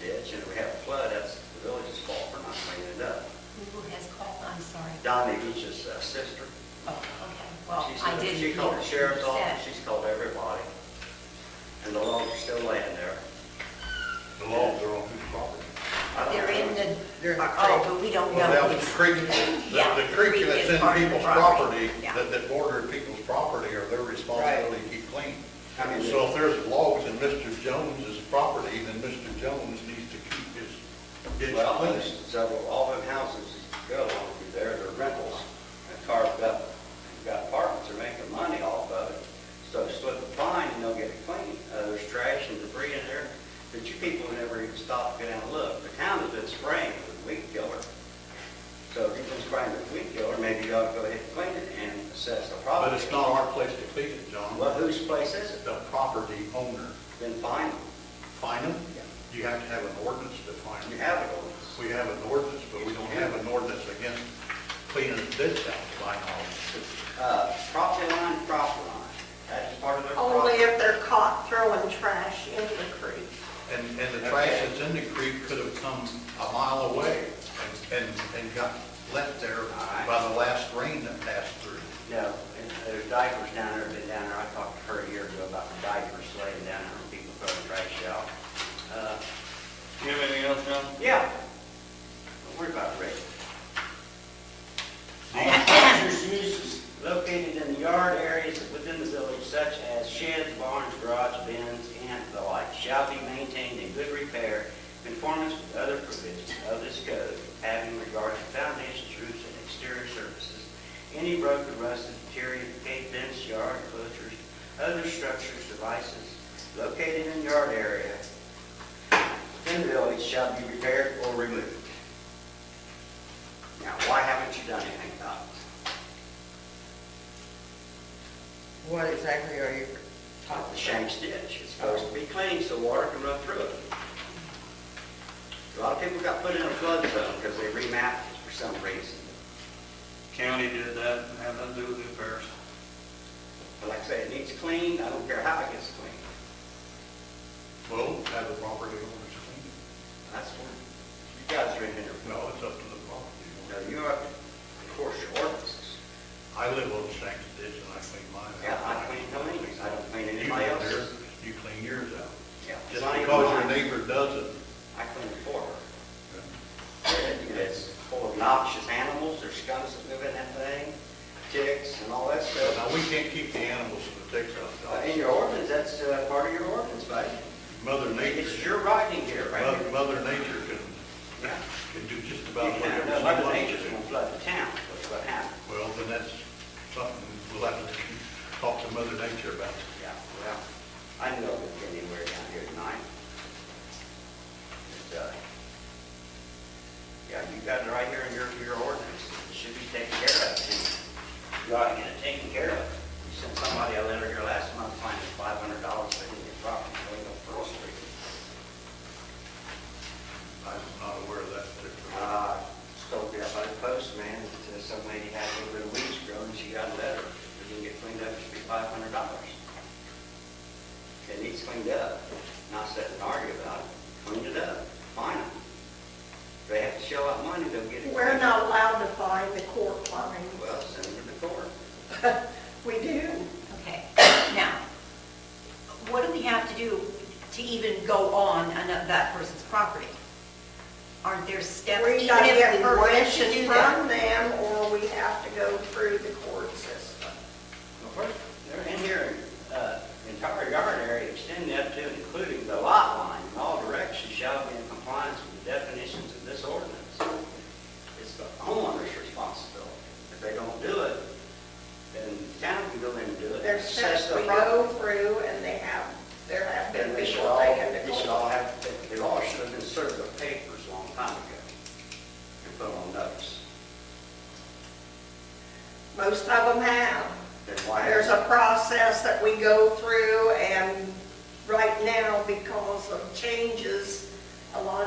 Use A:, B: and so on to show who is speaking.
A: ditch and we have a flood, that's the village's fault for not cleaning it up.
B: Who has called, I'm sorry.
A: Donnie Beach's uh, sister,
B: Oh, okay, well,
A: she
B: I
A: said,
B: didn't hear.
A: she called the sheriff's
B: what you
A: office,
B: said.
A: she's called everybody. And the logs are still laying there.
C: The logs are on whose property?
A: I don't
B: They're in
A: know.
B: the, they're in the
A: Oh.
B: creek, but we don't know.
C: Well, that was the
B: who's-
C: creek, the
B: Yeah,
C: the creek
B: is
C: that's in
B: part of the
C: people's property,
B: Yeah.
C: that, that bordered people's property, or their responsibility to keep clean.
A: I mean,
C: So if there's logs in Mr. Jones's property, then Mr. Jones needs to keep his ditch
A: Well, there's
C: clean.
A: several, all them houses that go along through there, they're rentals, and carved up, You've got apartments, they're making money off of it. So slip a fine and they'll get it clean. Uh, there's trash and debris in there that you people never even stop to go down and look. The town has been spraying with weed killer. So if you've been spraying with weed killer, maybe you ought to go ahead and clean it and assess the problem.
C: But it's not our place to clean it,
A: Well,
C: John.
A: whose place is it?
C: The property owner,
A: Then fine them.
C: fine them. You have to have an ordinance to fine
A: You
C: them.
A: have it on.
C: We have an ordinance, but we don't have an ordinance against cleaning the ditch out by law.
A: Uh, property line, property line. That is part of their property.
D: Only if they're caught throwing trash into the creek.
C: And, and the trash that's in the creek could have come a mile away and, and, and got left there by the last rain that passed through.
A: No, and there's diapers down there, been down there, I talked to her a year ago about the diapers laying down there, and people throwing trash out. Uh,
E: You have anything else, John?
A: Yeah, don't worry about Rick. All hazardous uses located in the yard areas within the village such as sheds, barns, garage bins, and the like shall be maintained in good repair, conformance with other provisions of this code, having regard to foundations, roofs, and exterior surfaces, any broken, rusted, deteriorated fence, yard enclosures, other structures, devices located in yard area within the village shall be repaired or removed. Now, why haven't you done anything about it?
F: What exactly are you
A: top of the
F: talking about?
A: Shanks ditch. It's supposed to be clean so water can run through it. A lot of people got put in a flood zone because they remapped it for some reason.
E: County did that, and had nothing to do with the repairs.
A: But like I say, it needs cleaned. I don't care how it gets cleaned.
C: Well, have the property owners clean
A: That's what, you guys are in here.
C: it. No, it's up to the property
A: Now,
C: owner.
A: you are, of course, your ordinances.
C: I live on Shanks Ditch and I clean mine out.
A: Yeah, I clean mine. I don't clean
C: You
A: anybody
C: live there,
A: else's.
C: You clean yours out.
A: Yeah.
C: Just
A: Mine-
C: because your
A: mine,
C: neighbor doesn't.
A: I clean it for her. It's full of noxious animals. There's scums that live in that thing, ticks and all that stuff.
C: Now, we can't keep the animals and the ticks
A: Uh,
C: out.
A: In your ordinance, that's uh, part of your ordinance, buddy.
C: Mother nature,
A: It's your writing here, right?
C: mother, mother nature can,
A: Yeah.
C: can do just
A: You
C: about whatever
A: can't,
C: she
A: no,
C: wants.
A: Mother
C: to
A: Nature's
C: do.
A: gonna flood the town, that's what happened.
C: Well, then that's something we'll have to talk to Mother Nature about.
A: Yeah, well, I know it's anywhere down here tonight. But, uh, Yeah, you got it right here in your, your ordinance, it should be taken care of, and you ought to get it taken care of. You sent somebody a letter here last month, finding five hundred dollars for your property, going to Pearl Street.
C: I'm not aware of that particular.
A: Uh, spoke to by the postman, that uh, some lady had a little bit of weeds growing, she got a letter, it didn't get cleaned up, it should be five hundred dollars. It needs cleaned up, not sit and argue about it, clean it up, fine them. If They have to shell out money, they'll get it.
D: We're
A: cleaned up.
D: not allowed to find the court fine.
A: Well, send them to the court.
D: We do.
B: Okay, now, what do we have to do to even go on ano- that person's property? Aren't there steps?
D: We
B: even
D: gotta
B: if
D: get
B: we were to
D: permission
B: do that?
D: from them, or we have to go through the court system.
A: Well, first, they're in here, uh, entire yard area extending up to and including the lot line in all directions shall be in compliance with the definitions of this ordinance. It's the homeowner's responsibility. If they don't do it, then the town can go in and do it.
D: There's
A: Assess
D: steps
A: the
D: we go
A: property.
D: through, and they have, there have
A: Then
D: been
A: they should
D: people
A: all,
D: taken
A: they should
D: to
A: all
D: court.
A: have, they- they all should have been served their papers a long time ago. And put on notice.
D: Most of them have.
A: Then why?
D: There's a process that we go through, and right now, because of changes, a lot of